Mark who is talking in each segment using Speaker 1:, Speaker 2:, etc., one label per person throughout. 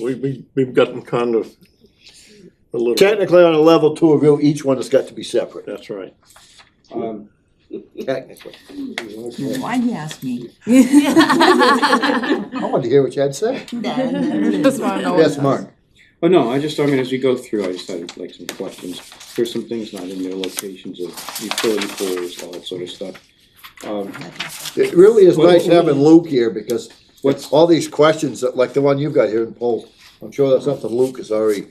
Speaker 1: We, we, we've gotten kind of a little,
Speaker 2: Technically, on a level two review, each one has got to be separate,
Speaker 1: that's right.
Speaker 3: Um,
Speaker 2: technically.
Speaker 4: Why'd you ask me?
Speaker 2: I wanted to hear what you had to say.
Speaker 5: Just wanna know.
Speaker 2: Yes, Mark.
Speaker 3: Oh, no, I just, I mean, as we go through, I just had like some questions. There's some things not in there, locations of utility poles, all that sort of stuff. Um,
Speaker 2: It really is nice having Luke here because
Speaker 3: What's-
Speaker 2: all these questions, that- like the one you've got here in poll, I'm sure that's something Luke is already,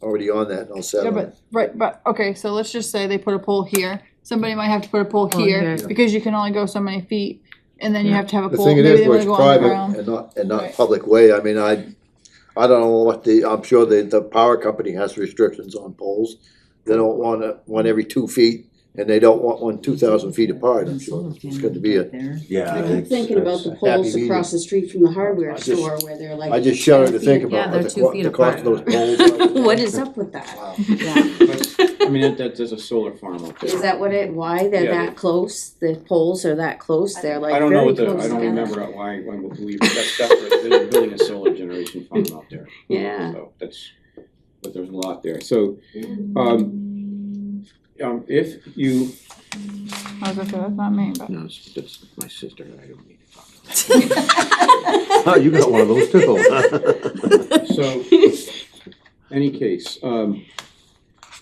Speaker 2: already on that and all set
Speaker 5: Yeah,
Speaker 2: on.
Speaker 5: but, right, but, okay, so let's just say they put a pole here, somebody might have to put a pole
Speaker 4: Oh,
Speaker 5: here,
Speaker 4: yeah.
Speaker 5: because you can only go so many feet, and then you have to have a
Speaker 2: The
Speaker 5: pole,
Speaker 2: thing it
Speaker 5: maybe
Speaker 2: is,
Speaker 5: they
Speaker 2: where it's
Speaker 5: wanna go on the
Speaker 2: private
Speaker 5: ground.
Speaker 2: and not, and not
Speaker 5: Right.
Speaker 2: public way, I mean, I, I don't know what the, I'm sure the, the power company has restrictions on poles. They don't want a- one every two feet, and they don't want one two thousand feet apart, I'm sure. It's gonna be a,
Speaker 6: Yeah.
Speaker 7: I keep thinking about the
Speaker 2: happy
Speaker 7: poles
Speaker 2: meeting.
Speaker 7: across the street from the hardware
Speaker 2: I just-
Speaker 7: store where they're like.
Speaker 2: I just shudder to think
Speaker 4: Yeah,
Speaker 2: about
Speaker 4: they're
Speaker 2: what the,
Speaker 4: two
Speaker 2: co-
Speaker 4: feet
Speaker 2: the cost of those poles. are.
Speaker 7: What is up with that?
Speaker 2: Wow.
Speaker 3: but, I mean, that, that, there's a solar farm up
Speaker 7: Is
Speaker 3: there.
Speaker 7: that what it, why they're
Speaker 3: Yeah.
Speaker 7: that close? The poles are that close? They're like
Speaker 3: I don't know
Speaker 7: very
Speaker 3: what the, I
Speaker 7: close
Speaker 3: don't
Speaker 7: together.
Speaker 3: remember why, why we believe, that's, that's, where they're building a solar generation farm out there.
Speaker 7: Yeah.
Speaker 3: So that's, but there's a lot there, so, um, um, if you.
Speaker 5: I was gonna say, that's not me, but.
Speaker 3: No, that's my sister, I don't need to talk about
Speaker 6: Oh, you got one of those too.
Speaker 3: So, any case, um,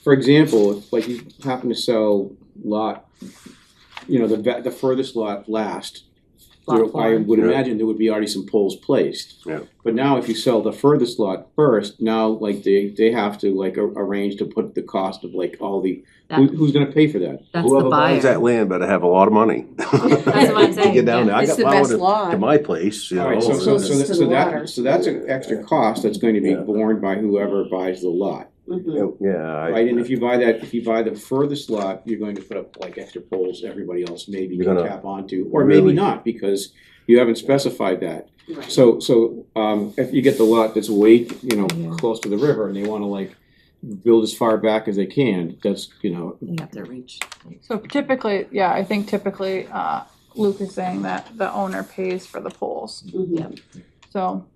Speaker 3: for example, if like you happen to sell lot, you know, the ve- the furthest lot last, there, I would
Speaker 6: Yeah.
Speaker 3: imagine there would be already some poles placed.
Speaker 6: Yeah.
Speaker 3: But now if you sell the furthest lot first, now like they, they have to like a- arrange to put the cost of like all the, who,
Speaker 4: That-
Speaker 3: who's gonna pay for that?
Speaker 4: That's the
Speaker 6: Whoever buys
Speaker 4: buyer.
Speaker 6: that land better have a lot of money.
Speaker 4: That's what I'm
Speaker 6: To
Speaker 4: saying,
Speaker 6: Get down
Speaker 4: yeah.
Speaker 6: there, I
Speaker 7: It's
Speaker 6: got
Speaker 7: the
Speaker 6: my
Speaker 7: best
Speaker 6: order to
Speaker 7: lot.
Speaker 6: my place, you know.
Speaker 3: Alright, so, so,
Speaker 6: and-
Speaker 3: so,
Speaker 7: Closest
Speaker 3: that-
Speaker 7: to
Speaker 3: so
Speaker 7: the
Speaker 3: that,
Speaker 7: water.
Speaker 3: so that's an extra cost that's going to be
Speaker 6: Yeah.
Speaker 3: borne by whoever buys the lot.
Speaker 7: Mhm.
Speaker 6: Yeah. I-
Speaker 3: Right, and if you buy that, if you buy the furthest lot, you're going to put up like extra poles, everybody else maybe
Speaker 6: You're
Speaker 3: can
Speaker 6: gonna
Speaker 3: tap onto, or maybe
Speaker 6: really-
Speaker 3: not, because you haven't specified that.
Speaker 7: Right.
Speaker 3: So, so, um, if you get the lot that's way, you know, close to the river, and they wanna like build as far back as they can, that's, you know,
Speaker 4: You have to reach.
Speaker 5: So typically, yeah, I think typically, uh, Luke is saying that the owner pays for the poles,
Speaker 7: Mhm.
Speaker 5: so,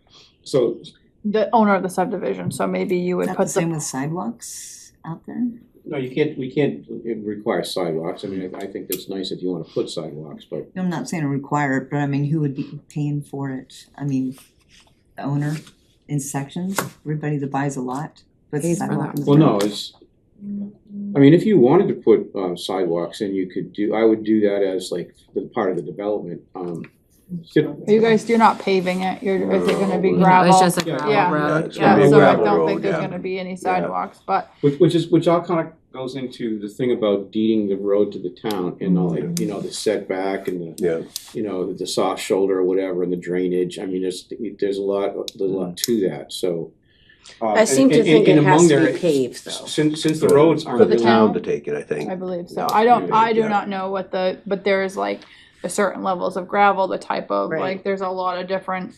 Speaker 3: so,
Speaker 5: the owner of the subdivision, so maybe you would
Speaker 4: Is that the
Speaker 5: put
Speaker 4: same
Speaker 5: the,
Speaker 4: with sidewalks out there?
Speaker 3: no, you can't, we can't require sidewalks, I mean, I, I think that's nice if you wanna put sidewalks, but
Speaker 4: I'm not saying to require it, but I mean, who would be paying for it? I mean, the owner in sections, everybody that buys a lot, but
Speaker 5: Pays for
Speaker 4: sidewalk
Speaker 5: that.
Speaker 4: in the
Speaker 3: Well, no,
Speaker 4: front.
Speaker 3: it's, I mean, if you wanted to put um, sidewalks in, you could do, I would do that as like the part of the development. um, tip-
Speaker 5: you guys, you're not paving it, you're, is it gonna be
Speaker 6: No, it's
Speaker 5: gravel?
Speaker 4: It's just a
Speaker 3: Yeah.
Speaker 4: gravel
Speaker 5: Yeah.
Speaker 4: road,
Speaker 6: it's
Speaker 5: Yeah,
Speaker 6: gonna be a
Speaker 5: so I
Speaker 6: gravel
Speaker 5: don't
Speaker 6: road,
Speaker 5: think there's
Speaker 6: yeah.
Speaker 5: gonna be any
Speaker 6: Yeah.
Speaker 5: sidewalks, but
Speaker 3: Which, which is, which all kind of goes into the thing about deeding the road to the town and all, that, you know, the setback and the,
Speaker 6: Yeah,
Speaker 3: you know, the soft shoulder or whatever and the drainage. I mean, there's, there's a lot, there's a lot to that, so. uh,
Speaker 7: I seem to
Speaker 3: and- and-
Speaker 7: think it
Speaker 3: and among
Speaker 7: has to
Speaker 3: there-
Speaker 7: be paved though.
Speaker 3: Since, since the roads
Speaker 6: for
Speaker 3: aren't
Speaker 6: the
Speaker 5: For
Speaker 3: really.
Speaker 6: town to take it, I think.
Speaker 5: I believe so. I don't, I do
Speaker 6: Yeah.
Speaker 5: not know what the, but there is like the certain levels of gravel, the type of,
Speaker 7: Right.
Speaker 5: like, there's a lot of different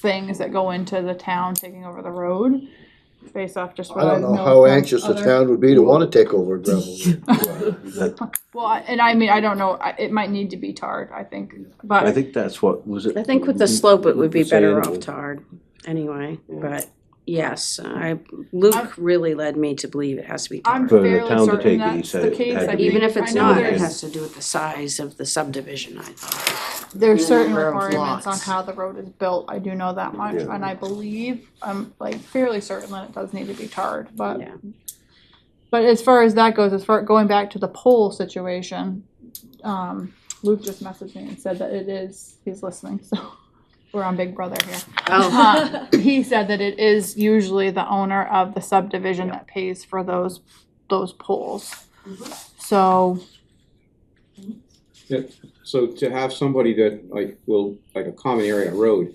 Speaker 5: things that go into the town taking over the road based off just
Speaker 2: I
Speaker 5: what I
Speaker 2: don't
Speaker 5: know
Speaker 2: know how
Speaker 5: from
Speaker 2: anxious the
Speaker 5: other-
Speaker 2: town would be to wanna take over gravel.
Speaker 6: That-
Speaker 5: Well, I- and I mean, I don't know, I- it might need to be tarred, I think,
Speaker 6: I
Speaker 5: but
Speaker 6: think that's what, was it?
Speaker 7: I think with the slope, it would be better
Speaker 6: Saying-
Speaker 7: off tarred anyway, but yes, I, Luke really led me to believe it has to be
Speaker 5: I'm
Speaker 7: tarred.
Speaker 6: For the
Speaker 5: fairly
Speaker 6: town to take
Speaker 5: certain
Speaker 6: it, he
Speaker 5: that's
Speaker 6: said
Speaker 5: the
Speaker 6: it
Speaker 5: case.
Speaker 6: had to
Speaker 5: I
Speaker 6: be-
Speaker 5: think-
Speaker 7: Even if
Speaker 5: I
Speaker 7: it's
Speaker 5: know
Speaker 7: not, it
Speaker 5: there's-
Speaker 7: has to do with the size of the subdivision, I thought.
Speaker 5: There's
Speaker 7: the
Speaker 5: certain
Speaker 7: number of
Speaker 5: requirements on
Speaker 7: lots.
Speaker 5: how the road is built, I do know that much,
Speaker 6: Yeah.
Speaker 5: and I believe, I'm like fairly certain that it does need to be tarred, but.
Speaker 7: Yeah.
Speaker 5: But as far as that goes, as far, going back to the poll situation, um, Luke just messaged me and said that it is, he's listening, so we're on Big Brother here. Uh, He said that it is usually the owner of the subdivision that pays for those, those poles.
Speaker 7: Mm-hmm.
Speaker 5: So,
Speaker 3: So to have somebody that like will, like a common area road,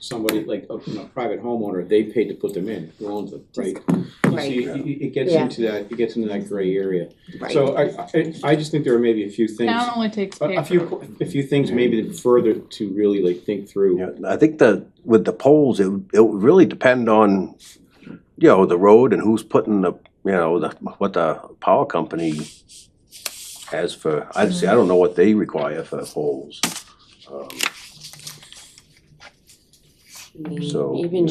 Speaker 3: somebody like a, you know, private homeowner, they paid to put them in, who owns it, right? So
Speaker 7: Right.
Speaker 3: you- you- it gets
Speaker 7: Yeah.
Speaker 3: into that, it gets into that gray area.
Speaker 7: Right.
Speaker 3: So I, I, I just think there are maybe a few things,
Speaker 5: town
Speaker 3: a,
Speaker 5: only takes pay
Speaker 3: a
Speaker 5: for
Speaker 3: few, a few things maybe further to really like think through.
Speaker 6: Yeah, I think the, with the poles, it, would- it would really depend on, you know, the road and who's putting the, you know, the, what the power company has for, I'd say, I don't know what they require for poles. Um,
Speaker 7: I mean,
Speaker 6: So,
Speaker 7: even